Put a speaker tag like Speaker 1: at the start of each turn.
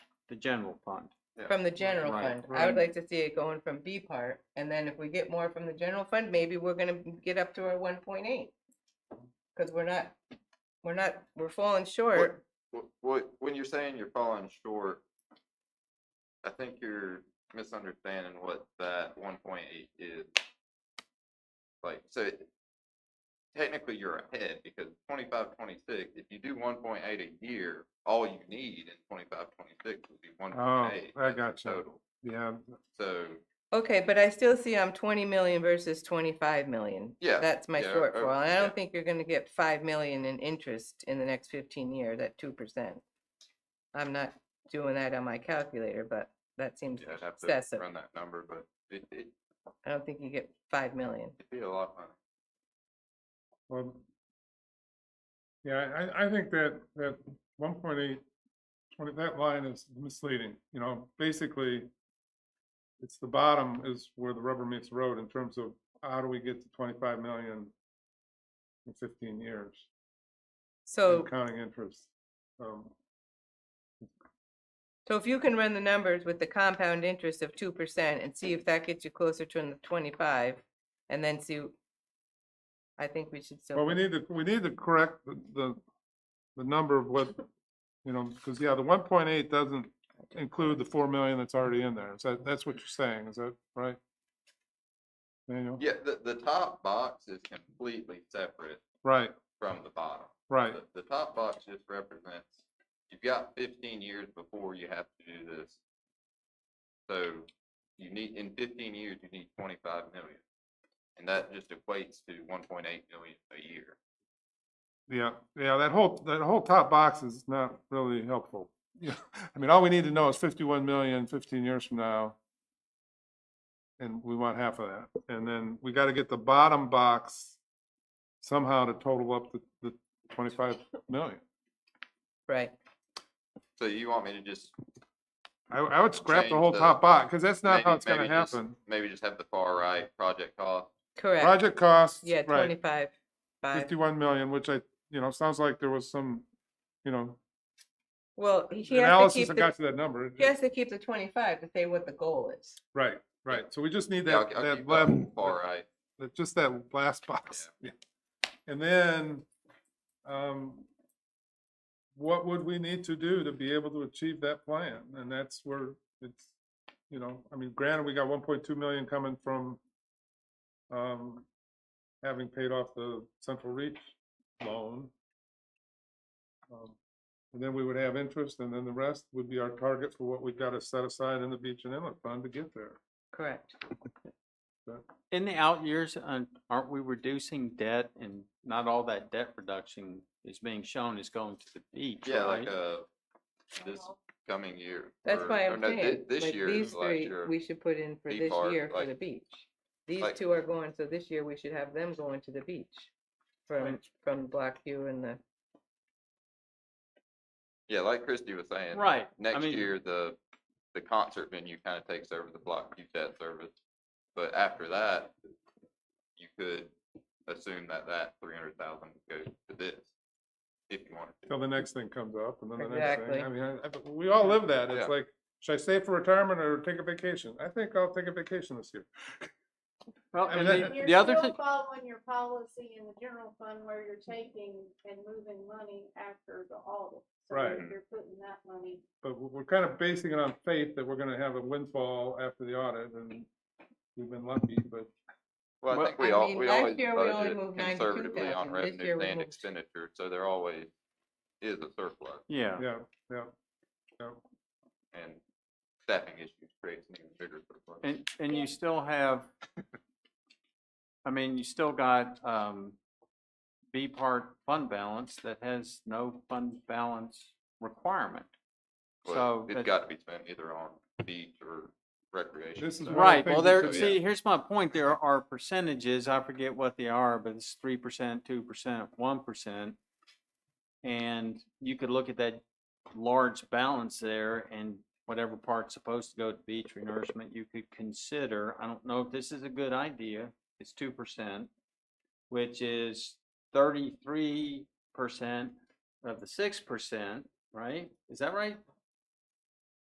Speaker 1: the general fund.
Speaker 2: from the general
Speaker 1: Right,
Speaker 2: fund. I would
Speaker 1: right.
Speaker 2: like to see it going from B part, and then if we get more from the general fund, maybe we're gonna get up to our one point eight. Cause we're not, we're not, we're falling short.
Speaker 3: What, when you're saying you're falling short, I think you're misunderstanding what that one point eight is. Like, so technically you're ahead because 25, 26. if you do one point eight a year, all you need in 25, 26 would be one point eight.
Speaker 4: Oh, I gotcha. Yeah,
Speaker 3: So,
Speaker 2: Okay, but I still see I'm twenty million versus twenty-five million.
Speaker 3: Yeah,
Speaker 2: That's my
Speaker 3: yeah, or-
Speaker 2: shortfall. and I
Speaker 3: yeah.
Speaker 2: don't think you're gonna get five million in interest in the next fifteen years at two percent. I'm not doing that on my calculator, but that seems
Speaker 3: yeah, I'd have to
Speaker 2: excessive.
Speaker 3: run that number, but it, it,
Speaker 2: I don't think you get five million.
Speaker 3: it'd be a lot of money.
Speaker 4: well. Yeah, I, I think that, that one point eight, twenty, that line is misleading, you know, basically. It's the bottom is where the rubber meets the road in terms of how do we get to twenty-five million in fifteen years,
Speaker 2: So.
Speaker 4: and counting interest. Um,
Speaker 2: So if you can run the numbers with the compound interest of two percent and see if that gets you closer to the twenty-five, and then see, I think we should still.
Speaker 4: Well, we
Speaker 2: put-
Speaker 4: need to, we need to correct the- the, the number of what, you know, because, yeah, the one point eight doesn't include the four million that's already in there. Is that, that's what you're saying, is that right? Daniel?
Speaker 3: Yeah, the, the top box is completely separate
Speaker 4: Right,
Speaker 3: from the bottom.
Speaker 4: right,
Speaker 3: The, the top box just represents, you've got fifteen years before you have to do this. So you need, in fifteen years, you need twenty-five million. And that just equates to one point eight million a year.
Speaker 4: yeah, yeah, that whole, that whole top box is not really helpful. Yeah, I mean, all we need to know is fifty-one million fifteen years from now. And we want half of that. And then we got to get the bottom box somehow to total up the, the twenty-five million.
Speaker 2: Right,
Speaker 3: So you want me to just?
Speaker 4: I, I would scrap the
Speaker 3: change
Speaker 4: whole
Speaker 3: the-
Speaker 4: top box, because that's not
Speaker 3: maybe-
Speaker 4: how it's gonna
Speaker 3: maybe just-
Speaker 4: happen.
Speaker 3: Maybe just have the far right project cost.
Speaker 2: correct.
Speaker 4: Project costs,
Speaker 2: Yeah,
Speaker 4: right,
Speaker 2: twenty-five, five.
Speaker 4: fifty-one million, which I, you know, sounds like there was some, you know,
Speaker 2: Well, he- he has to
Speaker 4: analysis
Speaker 2: keep,
Speaker 4: that
Speaker 2: the-
Speaker 4: got to that number. It-
Speaker 2: he has to keep the twenty-five to say what the goal is.
Speaker 4: Right, right, so we just need
Speaker 3: Yeah, I'll-
Speaker 4: that,
Speaker 3: I'll
Speaker 4: that
Speaker 3: keep that
Speaker 4: level,
Speaker 3: Far
Speaker 4: that-
Speaker 3: right.
Speaker 4: that- just that last box. Yeah. And then, um, what would we need to do to be able to achieve that plan? And that's where it's, you know, I mean, granted, we got one point two million coming from, um, having paid off the Central Reach loan. Um, And then we would have interest, and then the rest would be our target for what we've got to set aside in the beach and inlet fund to get there.
Speaker 2: Correct.
Speaker 1: In the out years, uh, aren't we reducing debt and not all that debt reduction is being shown is going to the beach,
Speaker 3: Yeah,
Speaker 1: right?
Speaker 3: like, uh, this coming year.
Speaker 2: That's
Speaker 3: or-
Speaker 2: why
Speaker 3: or
Speaker 2: I'm
Speaker 3: no, thi-
Speaker 2: saying,
Speaker 3: This
Speaker 2: like,
Speaker 3: year, is
Speaker 2: these
Speaker 3: the last
Speaker 2: three,
Speaker 3: year.
Speaker 2: we should put in for
Speaker 3: B
Speaker 2: this
Speaker 3: part,
Speaker 2: year for
Speaker 3: like-
Speaker 2: the beach. These
Speaker 3: like-
Speaker 2: two are going, so this year we should have them going to the beach from, from Block U and the,
Speaker 3: Yeah, like Christy was saying.
Speaker 1: Right, I
Speaker 3: next
Speaker 1: mean-
Speaker 3: year, the, the concert venue kind of takes over the block Q debt service. But after that, you could assume that that three hundred thousand goes to this, if you wanted to.
Speaker 4: Till the next thing comes up and then the next
Speaker 2: Exactly.
Speaker 4: thing. I mean, I- I- we all live that.
Speaker 3: Yeah.
Speaker 4: It's like, should I save for retirement or take a vacation? I think I'll take a vacation this year.
Speaker 1: Well,
Speaker 4: I mean,
Speaker 1: and
Speaker 4: that-
Speaker 1: the,
Speaker 5: You're
Speaker 1: the other
Speaker 5: still
Speaker 1: thing,
Speaker 5: following your policy in the general fund where you're taking and moving money after the audit. So you're-
Speaker 4: Right.
Speaker 5: You're putting that money,
Speaker 4: But we- we're kind of basing it on faith that we're gonna have a windfall after the audit and we've been lucky, but
Speaker 3: Well, I
Speaker 1: Well-
Speaker 3: think we
Speaker 2: I
Speaker 3: all,
Speaker 2: mean,
Speaker 3: we
Speaker 2: last
Speaker 3: always
Speaker 2: year we only
Speaker 3: budget
Speaker 2: moved
Speaker 3: conservatively
Speaker 2: 92,000.
Speaker 3: on
Speaker 2: This year
Speaker 3: revenues
Speaker 2: we
Speaker 3: and
Speaker 2: moved-
Speaker 3: expenditure, so there always is a surplus
Speaker 1: yeah,
Speaker 4: yeah, yeah. yeah.
Speaker 3: and staffing issues creates an even bigger surplus.
Speaker 1: and, and you still have, I mean, you still got, um, B part fund balance that has no fund balance requirement.
Speaker 3: But
Speaker 1: So
Speaker 3: It's
Speaker 1: that-
Speaker 3: got to be spent either on beach or recreation.
Speaker 4: This is
Speaker 3: so-
Speaker 4: one of the
Speaker 1: Right,
Speaker 4: things
Speaker 1: well,
Speaker 4: that
Speaker 1: there,
Speaker 4: could-
Speaker 1: see, here's my point, there are percentages, I forget what they are, but it's three percent, two percent, one percent. And you could look at that large balance there and whatever part's supposed to go to beach renourishment, you could consider, I don't know if this is a good idea, it's two percent, which is thirty-three percent of the six percent, right? Is that right?